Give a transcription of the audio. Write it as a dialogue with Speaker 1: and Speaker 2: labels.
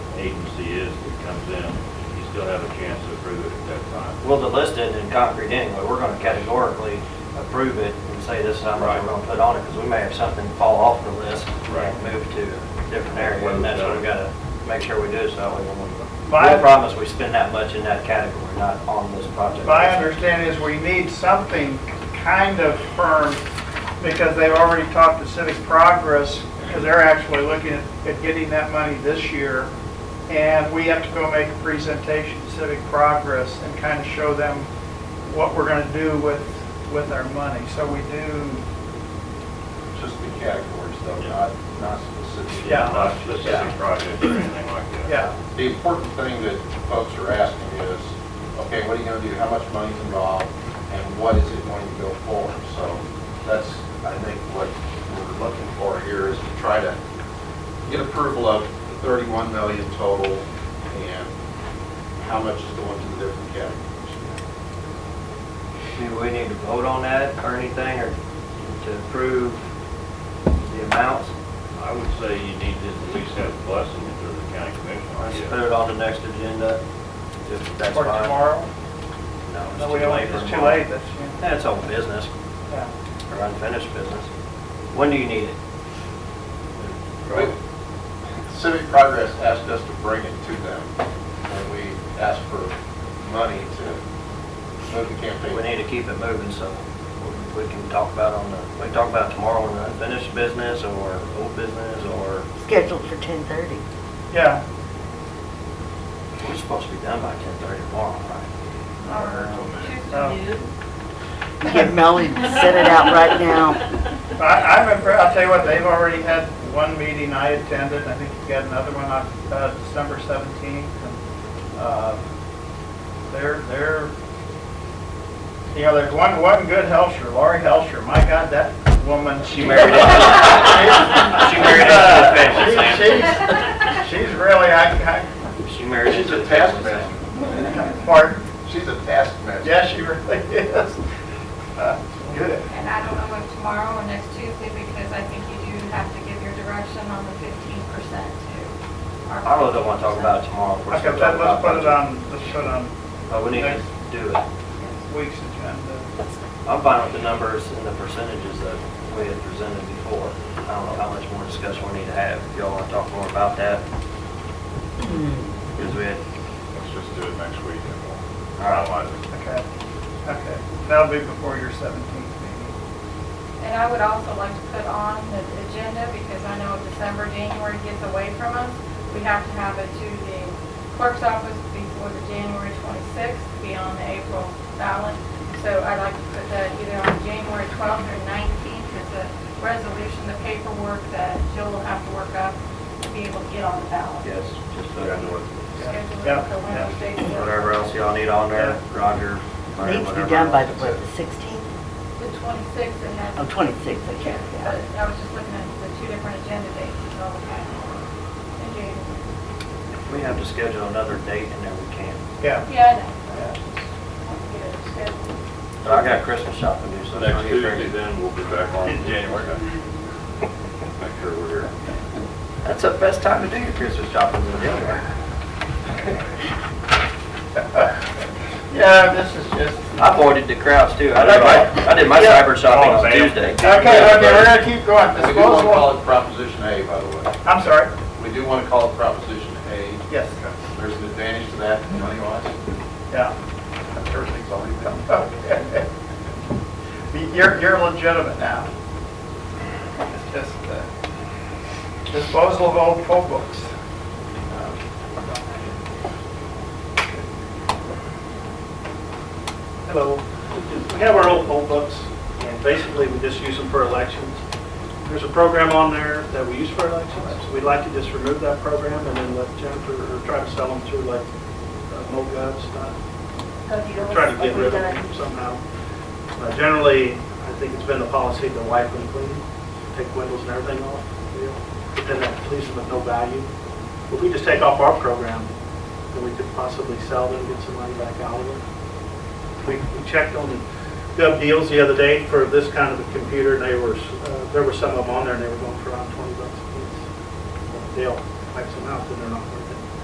Speaker 1: agency is that comes in, you still have a chance to approve it at that time.
Speaker 2: Well, the list isn't in concrete anyway, we're gonna categorically approve it and say this is how much
Speaker 1: Right.
Speaker 2: we're gonna put on it, because we may have something fall off the list
Speaker 1: Right.
Speaker 2: and move to a different area, and that's what we gotta make sure we do, so that way when we,
Speaker 3: My-
Speaker 2: we promise we spend that much in that category, not on this project.
Speaker 3: My understanding is we need something kind of firm, because they've already talked to Civic Progress, because they're actually looking at at getting that money this year, and we have to go make a presentation to Civic Progress and kind of show them what we're going to do with, with our money. So we do,
Speaker 4: Just the categories though, not, not specific.
Speaker 3: Yeah.
Speaker 1: Not specific projects or anything like that.
Speaker 3: yeah,
Speaker 4: The important thing that folks are asking is, okay, what are you gonna do, how much money's involved, and what is it going to go for? So that's, I think, what we're looking for here is to try to get approval of the 31 million total, and how much is going to the different categories.
Speaker 2: Do we need to vote on that or anything, or to approve the amounts?
Speaker 1: I would say you need to at least have a blessing if there's a county commission.
Speaker 2: Let's
Speaker 1: idea.
Speaker 2: put it on the next agenda, if that's
Speaker 3: for
Speaker 2: fine.
Speaker 3: tomorrow.
Speaker 2: No, it's
Speaker 3: No,
Speaker 2: too
Speaker 3: we don't,
Speaker 2: late for
Speaker 3: it's too
Speaker 2: tomorrow.
Speaker 3: late, that's,
Speaker 2: That's old business,
Speaker 3: yeah.
Speaker 2: or unfinished business. When do you need it?
Speaker 1: Right.
Speaker 4: Civic Progress asked us to bring it to them, and we asked for money to move the campaign.
Speaker 2: We need to keep it moving, so we can talk about on the, we can talk about tomorrow on the unfinished business or old business or,
Speaker 5: scheduled for 10:30.
Speaker 3: Yeah,
Speaker 2: we're supposed to be done by ten thirty tomorrow, right?
Speaker 5: Get Melly to set it out right now.
Speaker 3: I, I'm impressed, I'll tell you what, they've already had one meeting I attended, I think you got another one on, uh, December seventeenth, and, uh, they're, they're, you know, there's one, one good Helsher, Lori Helsher, my God, that woman.
Speaker 2: She married into- she married into the family, Sam.
Speaker 3: Sam. She's really, I,
Speaker 2: She married
Speaker 4: She's
Speaker 2: into
Speaker 4: a
Speaker 2: the
Speaker 4: task
Speaker 2: family.
Speaker 4: master.
Speaker 3: I, pardon,
Speaker 4: She's a taskmaster.
Speaker 3: yeah, she really is. Uh, Good.
Speaker 6: And I don't know if tomorrow or next Tuesday, because I think you do have to give your direction on the fifteen percent too. Or
Speaker 2: I really don't want to talk about it tomorrow. if we're
Speaker 3: Okay,
Speaker 2: still
Speaker 3: let-
Speaker 2: talking
Speaker 3: let's put
Speaker 2: about
Speaker 3: it on, let's put it on
Speaker 2: budget. But we need to do it.
Speaker 3: week's agenda.
Speaker 2: I'm fine with the numbers and the percentages that we had presented before. I don't know how much more discussion we need to have. If y'all want to talk more about that. Because we had,
Speaker 4: Let's just do it next week and we'll
Speaker 2: All
Speaker 4: finalize it.
Speaker 3: Okay, okay. That'll be before your 17th meeting.
Speaker 6: And I would also like to put on the agenda, because I know December, January gets away from us. We have to have it to the clerk's office before the January twenty-sixth, be on the April ballot. So I'd like to put that either on January twelfth or nineteenth, it's a resolution, the paperwork that Jill will have to work up to be able to get on the ballot.
Speaker 2: yes, just uh, put it on.
Speaker 6: Schedule
Speaker 3: Yeah,
Speaker 6: it for
Speaker 3: yeah.
Speaker 6: Wednesday.
Speaker 2: whatever else y'all need on there, Roger. Larry,
Speaker 5: Needs to
Speaker 2: whatever
Speaker 5: be done by the,
Speaker 2: else.
Speaker 5: what, the 16th?
Speaker 6: The 26th and
Speaker 5: Oh,
Speaker 6: that's,
Speaker 5: 26th, I
Speaker 6: yeah,
Speaker 5: can't,
Speaker 6: but
Speaker 5: yeah.
Speaker 6: I was just looking at the two different agenda dates, so, okay. And January.
Speaker 2: If we have to schedule another date in there, we can.
Speaker 3: Yeah,
Speaker 6: Yeah, I know. Want to get it scheduled.
Speaker 2: But I got Christmas shopping to do,
Speaker 1: So
Speaker 2: so. it's gonna
Speaker 1: next
Speaker 2: get
Speaker 1: Tuesday,
Speaker 2: crazy.
Speaker 1: then we'll be back on.
Speaker 3: In
Speaker 1: January. Make sure we're here.
Speaker 2: That's the best time to do your Christmas shopping in January.
Speaker 3: yeah, this is just,
Speaker 2: I avoided the crowds too. I did my, I did my
Speaker 3: Yeah.
Speaker 2: cyber shopping on
Speaker 1: Oh, man.
Speaker 2: Tuesday.
Speaker 3: okay, okay, we're gonna keep going.
Speaker 4: We do want to
Speaker 3: Disposable,
Speaker 4: call it Proposition A, by the way.
Speaker 3: I'm sorry,
Speaker 4: We do want to call it Proposition A.
Speaker 3: yes,
Speaker 4: There's an advantage to that money-wise.
Speaker 3: yeah,
Speaker 4: Everything's already done.
Speaker 3: okay. You're, you're legitimate now. It's just, uh, disposal of old poll books.
Speaker 7: Hello. We have our old poll books, and basically we just use them for elections. There's a program on there that we use for elections, so we'd like to just remove that program and then let Jennifer, or try to sell them through like uh, MoGov stuff. We're Trying to get rid of them somehow. Uh, Generally, I think it's been the policy to wipe and clean, take windows and everything off, you know, but then that leaves them with no value. If we just take off our program, then we could possibly sell them, get some money back out of it. We we checked on Gov Deals the other day for this kind of a computer, and they were, uh, there were some of them on there, and they were going for around 20 bucks a piece. They'll wipe some out, then they're not worth